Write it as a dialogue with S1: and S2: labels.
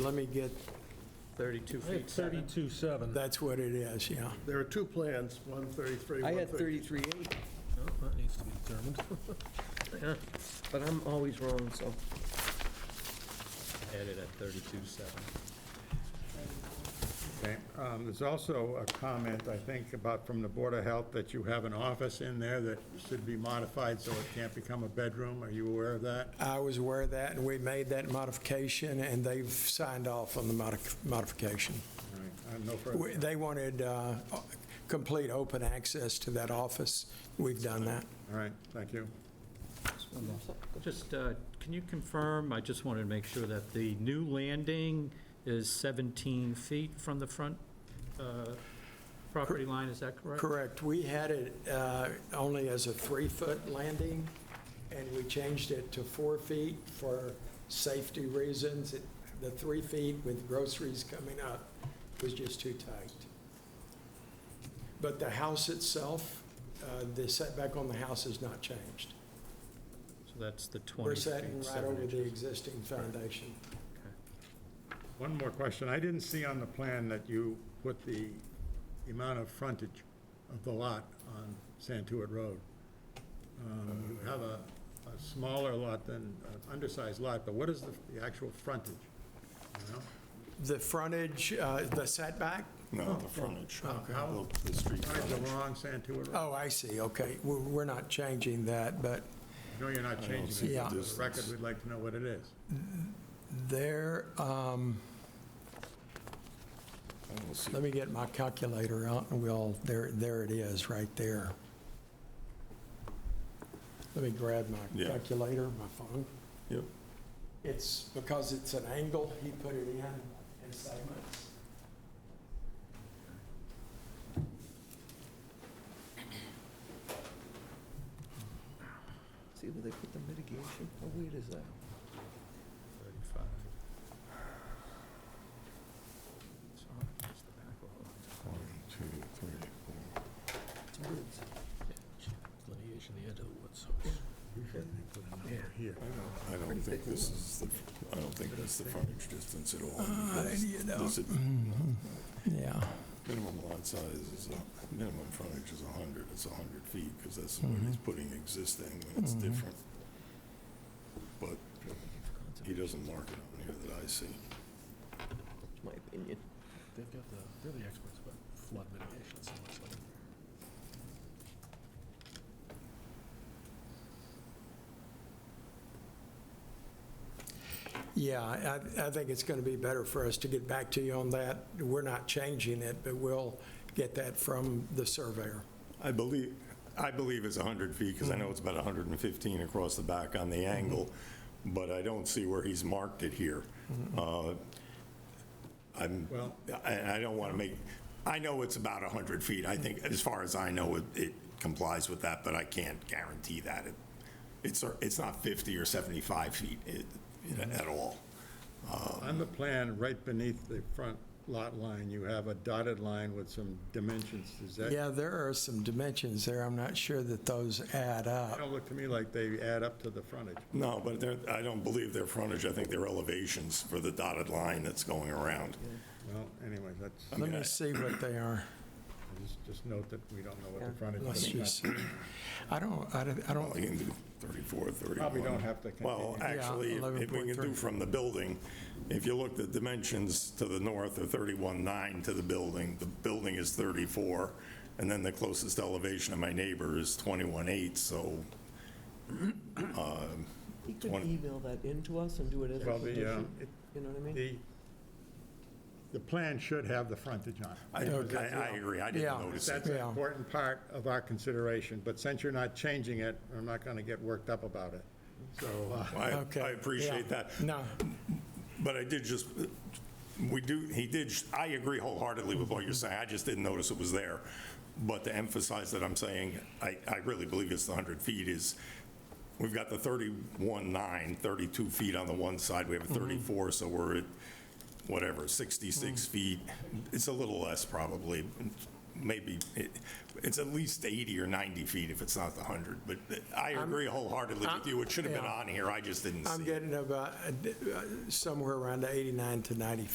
S1: Let me get,
S2: 32
S3: I had
S2: feet 7.
S3: 32.7.
S1: that's what it is, yeah.
S4: There are two plans, one 33,
S2: I
S4: one
S2: had
S4: 30.
S2: 33 eight,
S3: No, That needs to be determined.
S2: but I'm always wrong, so.
S5: Added at thirty-two seven.
S6: Okay, um, there's also a comment, I think, about from the Board of Health that you have an office in there that should be modified so it can't become a bedroom. Are you aware of that?
S1: I was aware of that, and we made that modification, and they've signed off on the modif- modification.
S6: All right, I have Uh, no
S1: We-
S6: further.
S1: They wanted uh, complete open access to that office. We've done that.
S6: All right, thank you.
S5: Just, uh, can you confirm, I just wanted to make sure that the new landing is 17 feet from the front uh, property line, is that correct?
S1: Correct. We had it uh, only as a three-foot landing, and we changed it to four feet for safety reasons. It- The three feet with groceries coming up was just too tight. But the house itself, uh, the setback on the house has not changed.
S5: So that's the 20
S1: We're
S5: feet,
S1: setting right
S5: seven
S1: over the
S5: inches.
S1: existing foundation.
S6: One more question. I didn't see on the plan that you put the amount of frontage of the lot on Santuit Road. Um, You have a a smaller lot than, an undersized lot, but what is the the actual frontage? You know?
S1: The frontage, uh, the setback?
S7: No, the frontage,
S6: How,
S7: the- the street
S6: Right, the
S7: frontage.
S6: wrong Santuit Road.
S1: Oh, I see, okay. We're we're not changing that, but
S6: No, you're not changing
S1: see
S6: it.
S1: the
S6: For the
S7: distance.
S6: record, we'd like to know what it is.
S1: there, um,
S7: I don't see
S1: Let me get my calculator out, and we'll, there, there it is, right there. Let me grab my
S7: Yeah.
S1: calculator, my phone.
S7: Yep.
S1: It's, because it's an angle, he put it in in segments.
S2: See where they put the mitigation? How weird is that?
S5: 35. Sorry, just the back of it.
S7: one, two, three, four.
S2: It's woods.
S3: Delineation of the edge of the woods. so it's-
S7: I don't think this is, the. I don't think that's the frontage distance at all. because
S1: Uh, you know. Mm-hmm.
S7: this is-
S1: Yeah.
S7: Minimum lot size is, a- minimum frontage is 100, it's 100 feet, because that's what he's putting existing, and it's different. But he doesn't mark it on here that I see.
S2: It's my opinion.
S3: They've got the, they're the experts about flood mitigation, so it's like.
S1: Yeah, I, I think it's going to be better for us to get back to you on that. We're not changing it, but we'll get that from the surveyor.
S7: I believe, I believe it's 100 feet, because I know it's about 115 across the back on the angle, but I don't see where he's marked it here. Uh, I'm,
S6: Well-
S7: I I don't want to make, I know it's about 100 feet. I think, as far as I know, it- it complies with that, but I can't guarantee that. It- It's, it's not 50 or 75 feet it- at all.
S6: On the plan, right beneath the front lot line, you have a dotted line with some dimensions. Is that,
S1: Yeah, there are some dimensions there. I'm not sure that those add up.
S6: don't look to me like they add up to the frontage.
S7: No, but they're, I don't believe their frontage. I think their elevations for the dotted line that's going around.
S6: Well, anyway, that's,
S1: Let
S7: mean,
S1: me
S7: I-
S1: see what they are.
S6: just- just note that we don't know what the
S2: Yeah.
S6: frontage
S1: Let's
S6: is.
S1: just, I don't, I don't- I
S7: Well, you
S1: don't,
S7: can do 34, 31.
S6: Probably don't have to
S7: Well,
S6: continue.
S7: actually,
S1: Yeah,
S7: if we can do
S1: 11.3.
S7: from the building, if you look, the dimensions to the north are 31.9 to the building. The building is 34, and then the closest elevation of my neighbor is 21.8, so
S2: He could
S7: Twenty.
S2: email that in to us and do it as a
S6: Well, the, uh,
S2: condition.
S6: it-
S2: You know what I mean?
S6: The, the plan should have the frontage on it.
S7: I, I I agree, I didn't
S1: Yeah.
S7: notice it.
S6: That's an
S1: Yeah.
S6: important part of our consideration, but since you're not changing it, I'm not going to get worked up about it. So, uh,
S7: I
S1: okay.
S7: I appreciate
S1: yeah.
S7: that.
S1: No,
S7: But I did just, we do, he did, I agree wholeheartedly with what you're saying, I just didn't notice it was there. But to emphasize that I'm saying, I, I really believe it's the 100 feet is, we've got the 31.9, 32 feet on the one side, we have a 34, so we're at, whatever, 66 feet. It's a little less probably, maybe, it- it's at least 80 or 90 feet if it's not the 100, but I agree wholeheartedly with you, it should have been
S1: yeah.
S7: on here, I just didn't see it.
S1: I'm getting about uh, somewhere around 89 to 90